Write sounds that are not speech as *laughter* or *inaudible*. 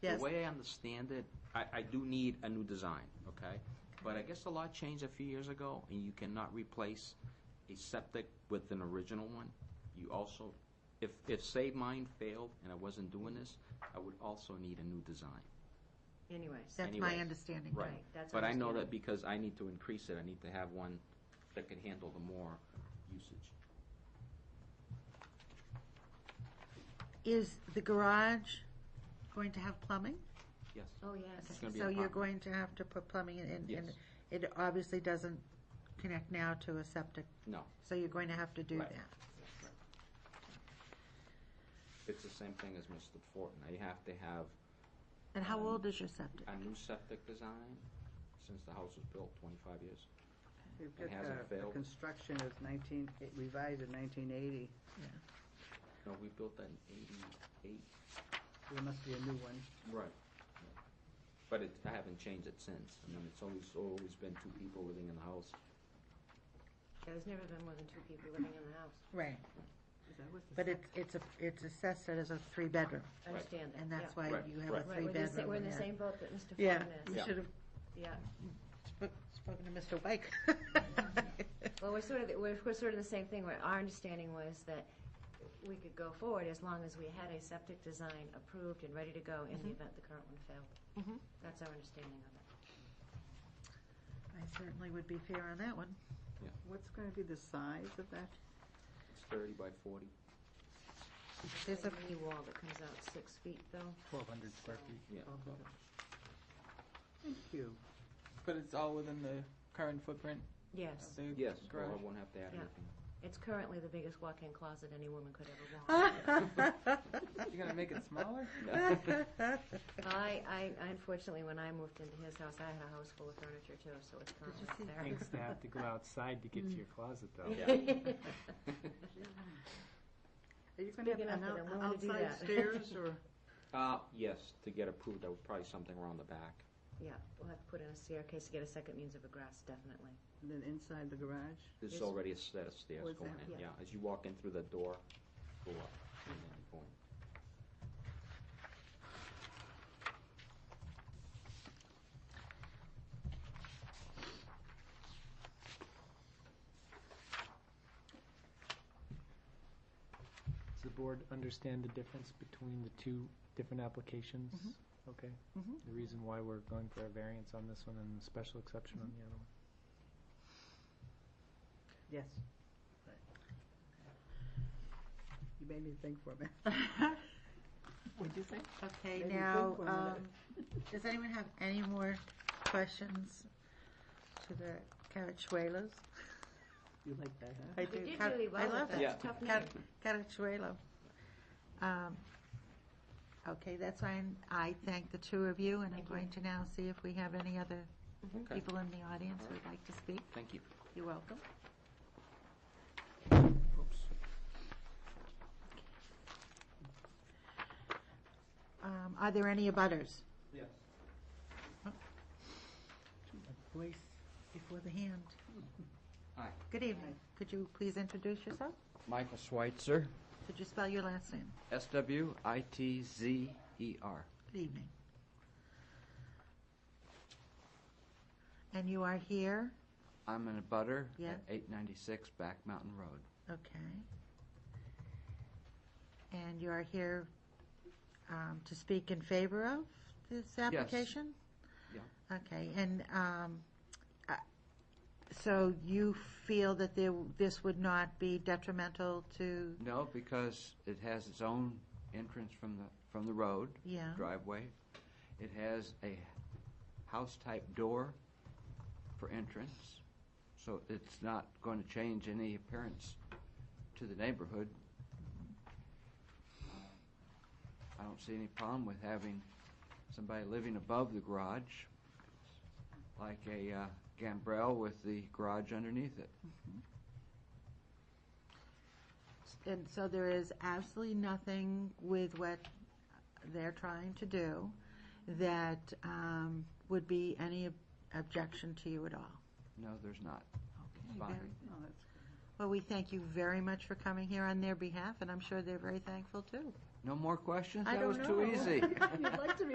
The Yes. way I understand it, I, I do need a new design, okay? But I guess the law changed a few years ago, and you cannot replace a septic with an original one. You also, if, if Save Mine failed and I wasn't doing this, I would also need a new design. Anyway, That's my Anyways, understanding. Right. Right, that's But I know that understandable. because I need to increase it, I need to have one that can handle the more usage. Is the garage going to have plumbing? Yes. oh, yes. It's gonna be So an you're going apartment. to have to put plumbing in, and- and Yes. it obviously doesn't connect now to a septic, No, so you're going to have to do Right. that. it's the same thing as Mr. Fortin. I have to have And how Um, old is your septic? a new septic design since the house was built twenty-five years. It hasn't failed. The construction is nineteen, it revised in nineteen eighty, No, we built that in eighty-eight. so there must be a new one. Right. But it, I haven't changed it since. I mean, it's always, always been two people living in the house. There's never been more than two people living in the house. Right, Is that what the but it's, it's, a it's assessed as a three-bedroom, Right. I understand that, and yeah. that's why Right, you have a right. Right, we're the sa- three-bedroom. we're in yeah. the same boat that Mr. Yeah, Fortin is, we Yeah. should have yeah. sp- spoken to Mr. *laughs* White. Well, we're sort of, we're, we're sort of the same thing, where our understanding was that we could go forward as long as we had a septic design approved and ready to go Mm-hmm. in the event the current one failed. Mhm. That's our understanding of it. I certainly would be fair on that one. What's gonna be the size of that? It's thirty by forty. There's *laughs* a, knee wall that comes out six feet, though. Twelve hundred square So- feet. Yeah. Oh, Thank you. But it's all within the current footprint Yes, of the Yes, well, garage. I won't have to add Yeah. anything. it's currently the biggest walk-in closet any woman could ever *laughs* want. You're gonna make it smaller? *laughs* *laughs* I, I unfortunately, when I moved into his house, I had a house full of furniture too, so it's currently see- there. *laughs* *laughs* Thanks to have to go outside to get to your closet though. *laughs* Are you *laughs* gonna have Speaking an of that, out- I'm willing to do *laughs* outside that. *laughs* stairs or? Uh, yes, to get approved, I would probably something around the back. Yeah, we'll have to put in a staircase to get a second means of egress, definitely. And then inside the garage? There's Yes. already a set of stairs Where's going that? in, yeah. Yeah. As you walk in through the door, go up. and then you go in. Does the board understand the difference between the two different applications? Okay. Mhm. The reason why we're going for a variance on this one and a special exception on the other one? Yes. You made me think for a minute. What'd you say? Okay, Made me now, think for a minute. um, does anyone have any more questions to the Carachuelos? You like that, huh? I We do. did Car- really well I with love that. it. Yeah. Tough Car- name. Carachuelo. Um, Okay, that's why I'm- I thank the two of you, and I'm Thank you. going to now see if we have any other Okay, people in the audience who'd like to speak. thank you. You're welcome. Oops. Um, Are there any abutters? Yes. Voice before the hand. Hi. Good evening. Could you please introduce yourself? Michael Schweitzer, Could you spell your last name? S W I T Z E R. Good evening. And you are here? I'm in a butter Yeah. at 896 Back Mountain Road. Okay. And you are here um, to speak in favor of this application? Yeah. Okay, and um, uh, so you feel that there- this would not be detrimental to, No, because it has its own entrance from the from the road yeah? driveway. It has a house type door for entrance, so it's not going to change any appearance to the neighborhood. I don't see any problem with having somebody living above the garage, like a uh, gambrel with the garage underneath it. And so there is absolutely nothing with what they're trying to do that um, would be any ob- objection to you at all. No, there's not. Okay. Fine. very- No, Oh, that's, Well, we thank you very much for coming here on their behalf, and I'm sure they're very thankful too. No more questions? I don't That was too *laughs* know. *laughs* easy. you'd like to be